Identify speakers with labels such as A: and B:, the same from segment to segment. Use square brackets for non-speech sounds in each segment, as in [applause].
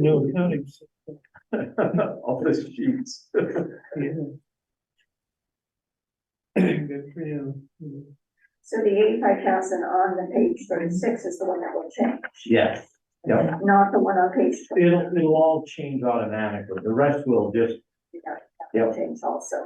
A: No
B: [laughs]
A: accounting.
C: Office sheets.
A: Yeah. Good for you.
D: So the eighty-five thousand on the page thirty-six is the one that will change,
C: Yes, yeah,
D: not the one on page
C: it'll, it'll all change automatically, the rest will just,
D: twenty-nine.
C: Yeah.
D: Change also.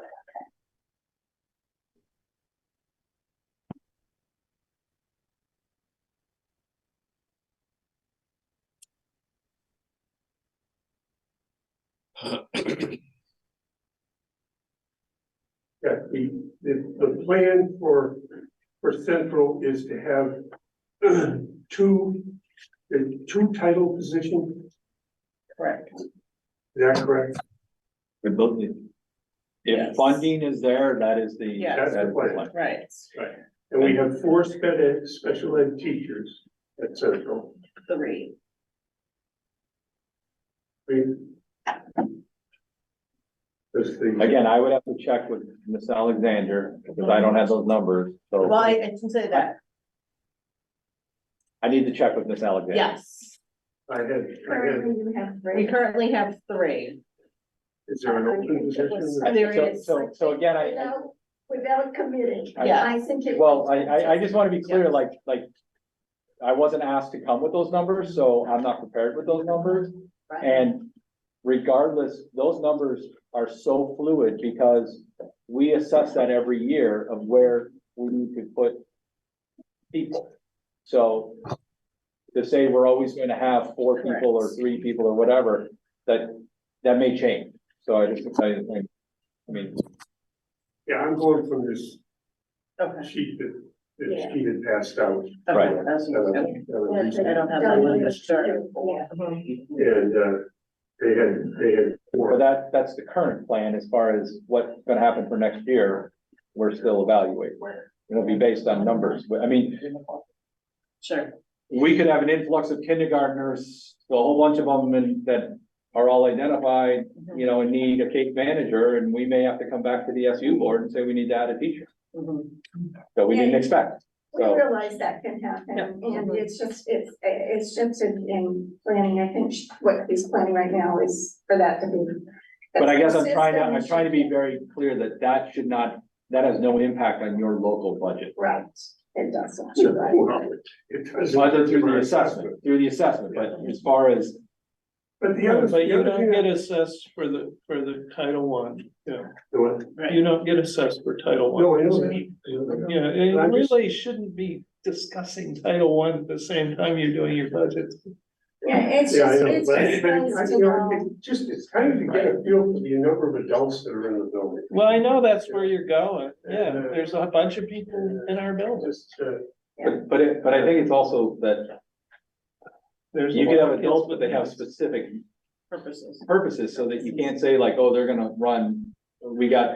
B: Yeah, the, the, the plan for, for Central is to have [clears throat] two, uh, two title positions,
D: Correct.
B: is that correct?
E: They're both new. If
F: Yes.
E: funding is there, that is the.
F: Yes.
B: That's the
E: that is
B: plan.
F: Right,
B: And we have four sped ed, special ed teachers at Central.
F: three.
B: I mean, That's the,
E: Again, I would have to check with Miss Alexander, because I don't have those numbers,
F: Well,
E: so
F: I I can say that,
E: I need to check with Miss Alexander.
F: yes.
B: I had, I had,
D: Currently, you have
F: We
D: three.
F: currently have three.
B: is there an open position?
E: I-
F: There
E: so-
F: is-
E: So, so again, I- I,
D: Without, without committing,
F: Yeah.
D: I think it.
E: well, I, I, I just want to be clear, like, like, I wasn't asked to come with those numbers, so I'm not prepared with those numbers.
F: Right.
E: And regardless, those numbers are so fluid because we assess that every year of where we need to put people. So to say we're always going to have four people or three people or whatever, that, that may change. So I just, I, I I mean,
B: Yeah, I'm going from this
F: Okay.
B: sheet that, that
D: Yeah.
B: she had passed out.
E: Right.
F: Okay, that's-
B: uh,
F: okay.
B: uh,
D: Yeah,
F: I don't have that one, but sure.
D: Yeah.
B: And, uh, they had, they had four.
E: But that, that's the current plan as far as what's gonna happen for next year, we're still evaluating. It'll be based on numbers, But, I mean,
F: Sure,
E: we could have an influx of kindergartners, a whole bunch of them and that are all identified, you know, and need a case manager, and we may have to come back to the SU board and say we need to add a teacher,
F: Mhm.
E: that we didn't expect.
D: We
E: So-
D: realize that can happen,
F: Yeah.
D: and it's just, it's, it's just in, in planning, I think what he's planning right now is for that to be.
E: But I guess I'm trying to, I'm trying to be very clear that that should not, that has no impact on your local budget.
D: Right, it doesn't, you're right.
B: Well, It doesn't.
E: Other through the assessment, through the assessment, but as far as
B: But the other,
A: But
B: the
A: you
B: other
A: don't get
B: thing,
A: assessed for the, for the Title One, yeah.
B: the one-
A: You don't get assessed for Title One.
B: no, I know that.
A: Yeah, it
B: I'm just-
A: really shouldn't be discussing Title One at the same time you're doing your budget.
D: Yeah, it's
B: Yeah, I
D: just,
B: know,
D: it's
B: but,
D: just
B: but,
D: nice to
B: you know,
D: know.
B: it just, it's kind of to get a feel for the number of adults that are in the building.
A: Well, I know that's where you're going. Yeah, there's a bunch of people in our building.
B: Just, uh,
E: But, but it, but I think it's also that
A: There's a
E: you could
A: lot
E: have
A: of
E: adults,
A: kids
E: but they have
A: with-
E: specific
F: purposes.
E: purposes, so that you can't say like, oh, they're gonna run. We got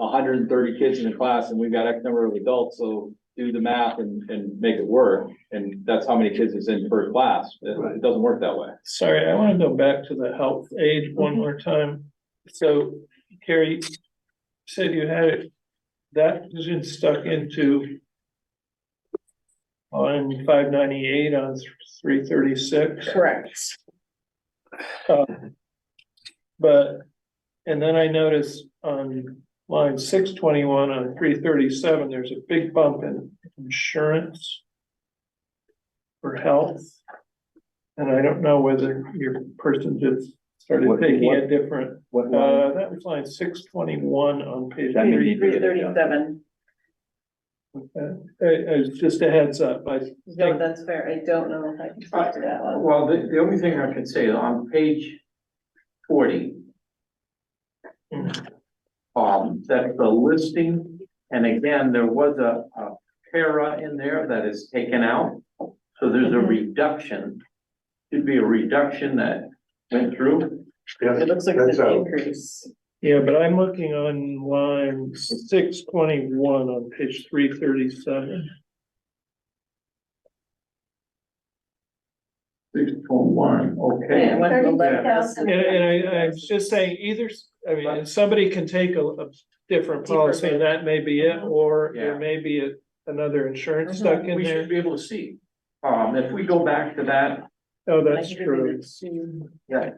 E: hundred and thirty kids in the class and we've got X number of adults, so do the math and, and make it work. And that's how many kids is in per class. It, it doesn't work that way.
A: Sorry, I wanna go back to the health aid one more time. So Carrie you said you had it, that position stuck into on five ninety-eight on three thirty-six,
F: Correct.
A: but, and then I noticed on line six twenty-one on three thirty-seven, there's a big bump in insurance for health. And I don't know whether your person just started
E: What-
A: taking a
E: what-
A: different,
E: What,
A: uh, that was line six twenty-one on page
E: That may
A: three.
E: be-
F: Three thirty-seven,
A: Uh, it's just a heads up, I,
F: no, that's fair, I don't know if I can talk to that one.
C: well, the, the only thing I can say on page forty. Um, that's the listing, and again, there was a, a para in there that is taken out. So there's a
F: Mhm.
C: reduction, should be a reduction that went through.
B: yeah,
F: It looks like it's
B: That's
F: an
B: out.
F: increase.
A: yeah, but I'm looking on line six twenty-one on page three thirty-seven.
C: Six point one,
F: Yeah,
C: okay.
F: it went from
D: Thirty-five
F: 11,000.
D: thousand.
A: And, and I, I was just saying, either, s- I mean, and somebody can take a, a different policy, and that may be it, or there
C: Yeah. Mm-hmm.
A: may be a, another insurance stuck in
C: We should
A: there.
C: be able to see. Um, if we go back to that
A: Oh,
F: I
A: that's
F: think we
A: true.
F: need to-
E: Yeah,